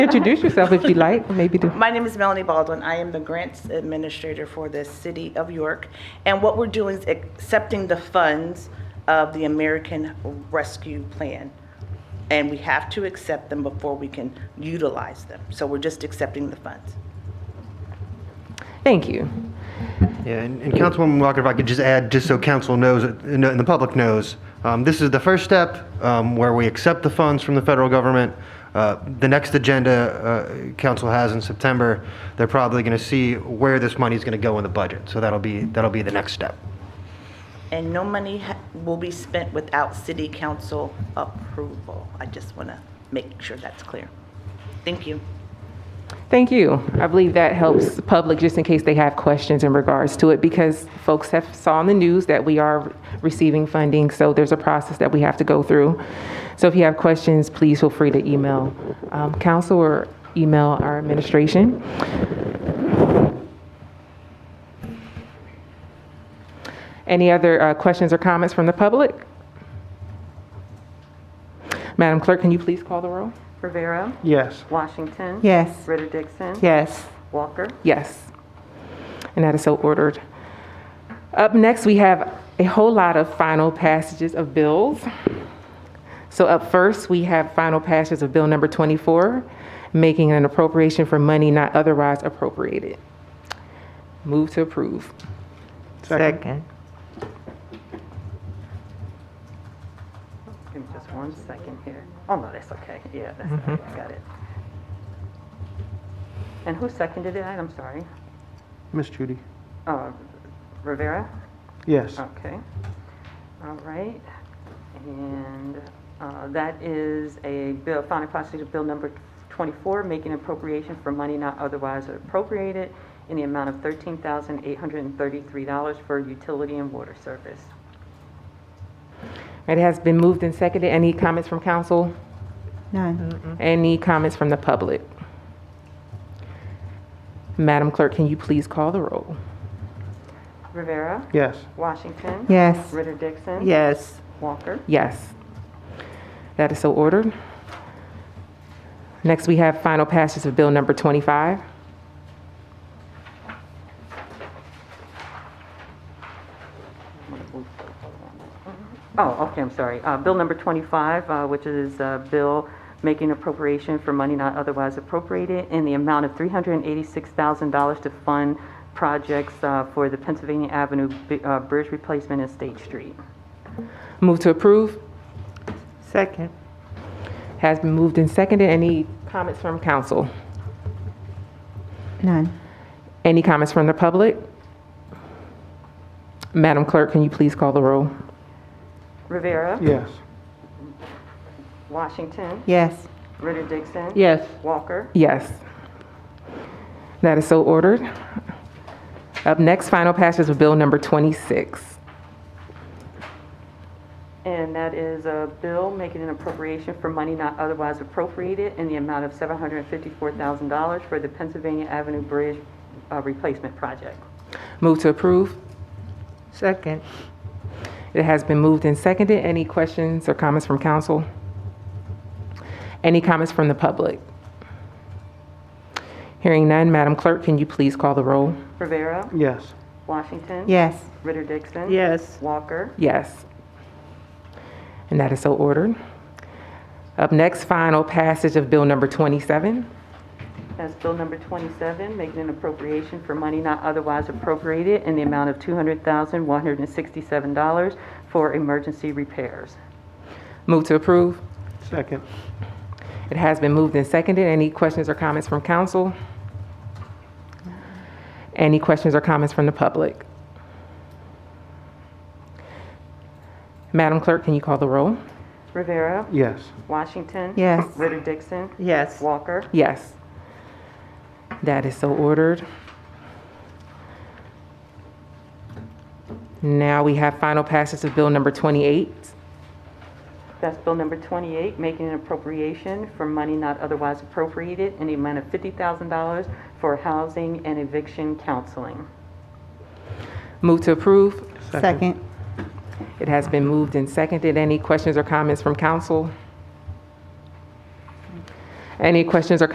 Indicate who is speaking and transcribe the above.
Speaker 1: Introduce yourself if you like, maybe do.
Speaker 2: My name is Melanie Baldwin. I am the grants administrator for the City of York. And what we're doing is accepting the funds of the American Rescue Plan. And we have to accept them before we can utilize them. So we're just accepting the funds.
Speaker 1: Thank you.
Speaker 3: Yeah, and, and Councilwoman Walker, if I could just add, just so council knows, uh, kn- and the public knows, um, this is the first step um, where we accept the funds from the federal government. Uh, the next agenda uh, council has in September, they're probably going to see where this money is going to go in the budget. So that'll be that'll be the next step.
Speaker 2: And no money ha- will be spent without city council approval. I just want to make sure that's clear. Thank you.
Speaker 1: Thank you. I believe that helps the public just in case they have questions in regards to it because folks have saw on the news that we are receiving funding, so there's a process that we have to go through. So if you have questions, please feel free to email um, council or email our administration. Any other uh, questions or comments from the public? Madam Clerk, can you please call the roll?
Speaker 4: Rivera.
Speaker 3: Yes.
Speaker 4: Washington.
Speaker 5: Yes.
Speaker 4: Ritter Dixon.
Speaker 5: Yes.
Speaker 4: Walker.
Speaker 1: Yes. And that is so ordered. Up next, we have a whole lot of final passages of bills. So up first, we have final passages of Bill Number 24, making an appropriation for money not otherwise appropriated. Move to approve.
Speaker 5: Second.
Speaker 4: Give me just one second here. Oh, no, that's okay. Yeah, that's okay. I got it. And who seconded it? I'm sorry.
Speaker 3: Miss Judy. Uh,
Speaker 4: Uh, Rivera?
Speaker 3: Yes.
Speaker 4: Okay. All right. And uh, that is a bill, final passage of Bill Number 24, making appropriation for money not otherwise appropriated in the amount of $13,833 for utility and water service.
Speaker 1: It has been moved and seconded. Any comments from council?
Speaker 5: None.
Speaker 1: Any comments from the public? Madam Clerk, can you please call the roll?
Speaker 4: Rivera?
Speaker 3: Yes.
Speaker 4: Washington?
Speaker 5: Yes.
Speaker 4: Ritter Dixon?
Speaker 5: Yes.
Speaker 4: Walker?
Speaker 1: Yes. That is so ordered. Next, we have final passage of Bill Number 25.
Speaker 4: Oh, okay, I'm sorry. Uh, Bill number 25, uh, which is a bill making appropriation for money not otherwise appropriated in the amount of $386,000 to fund projects uh, for the Pennsylvania Avenue bi- uh, Bridge Replacement and State Street.
Speaker 1: Move to approve.
Speaker 5: Second.
Speaker 1: Has been moved and seconded. Any comments from council?
Speaker 5: None.
Speaker 1: Any comments from the public? Madam Clerk, can you please call the roll?
Speaker 4: Rivera.
Speaker 3: Yes.
Speaker 4: Washington.
Speaker 5: Yes.
Speaker 4: Ritter Dixon.
Speaker 5: Yes.
Speaker 4: Walker.
Speaker 1: Yes. That is so ordered. Up next, final passage of Bill Number 26.
Speaker 4: And that is a bill making an appropriation for money not otherwise appropriated in the amount of $754,000 for the Pennsylvania Avenue Bridge uh, Replacement Project.
Speaker 1: Move to approve.
Speaker 5: Second.
Speaker 1: It has been moved and seconded. Any questions or comments from council? Any comments from the public? Hearing none, Madam Clerk, can you please call the roll?
Speaker 4: Rivera.
Speaker 3: Yes.
Speaker 4: Washington.
Speaker 5: Yes.
Speaker 4: Ritter Dixon.
Speaker 5: Yes.
Speaker 4: Walker.
Speaker 1: Yes. And that is so ordered. Up next, final passage of Bill Number 27.
Speaker 4: That's bill number 27, making an appropriation for money not otherwise appropriated in the amount of $200,167 for emergency repairs.
Speaker 1: Move to approve.
Speaker 3: Second.
Speaker 1: It has been moved and seconded. Any questions or comments from council? Any questions or comments from the public? Madam Clerk, can you call the roll?
Speaker 4: Rivera.
Speaker 3: Yes.
Speaker 4: Washington.
Speaker 5: Yes.
Speaker 4: Ritter Dixon.
Speaker 5: Yes.
Speaker 4: Walker.
Speaker 1: Yes. That is so ordered. Now we have final passage of Bill Number 28.
Speaker 4: That's Bill number 28, making an appropriation for money not otherwise appropriated in the amount of $50,000 for housing and eviction counseling.
Speaker 1: Move to approve.
Speaker 5: Second.
Speaker 1: It has been moved and seconded. Any questions or comments from council? Any questions or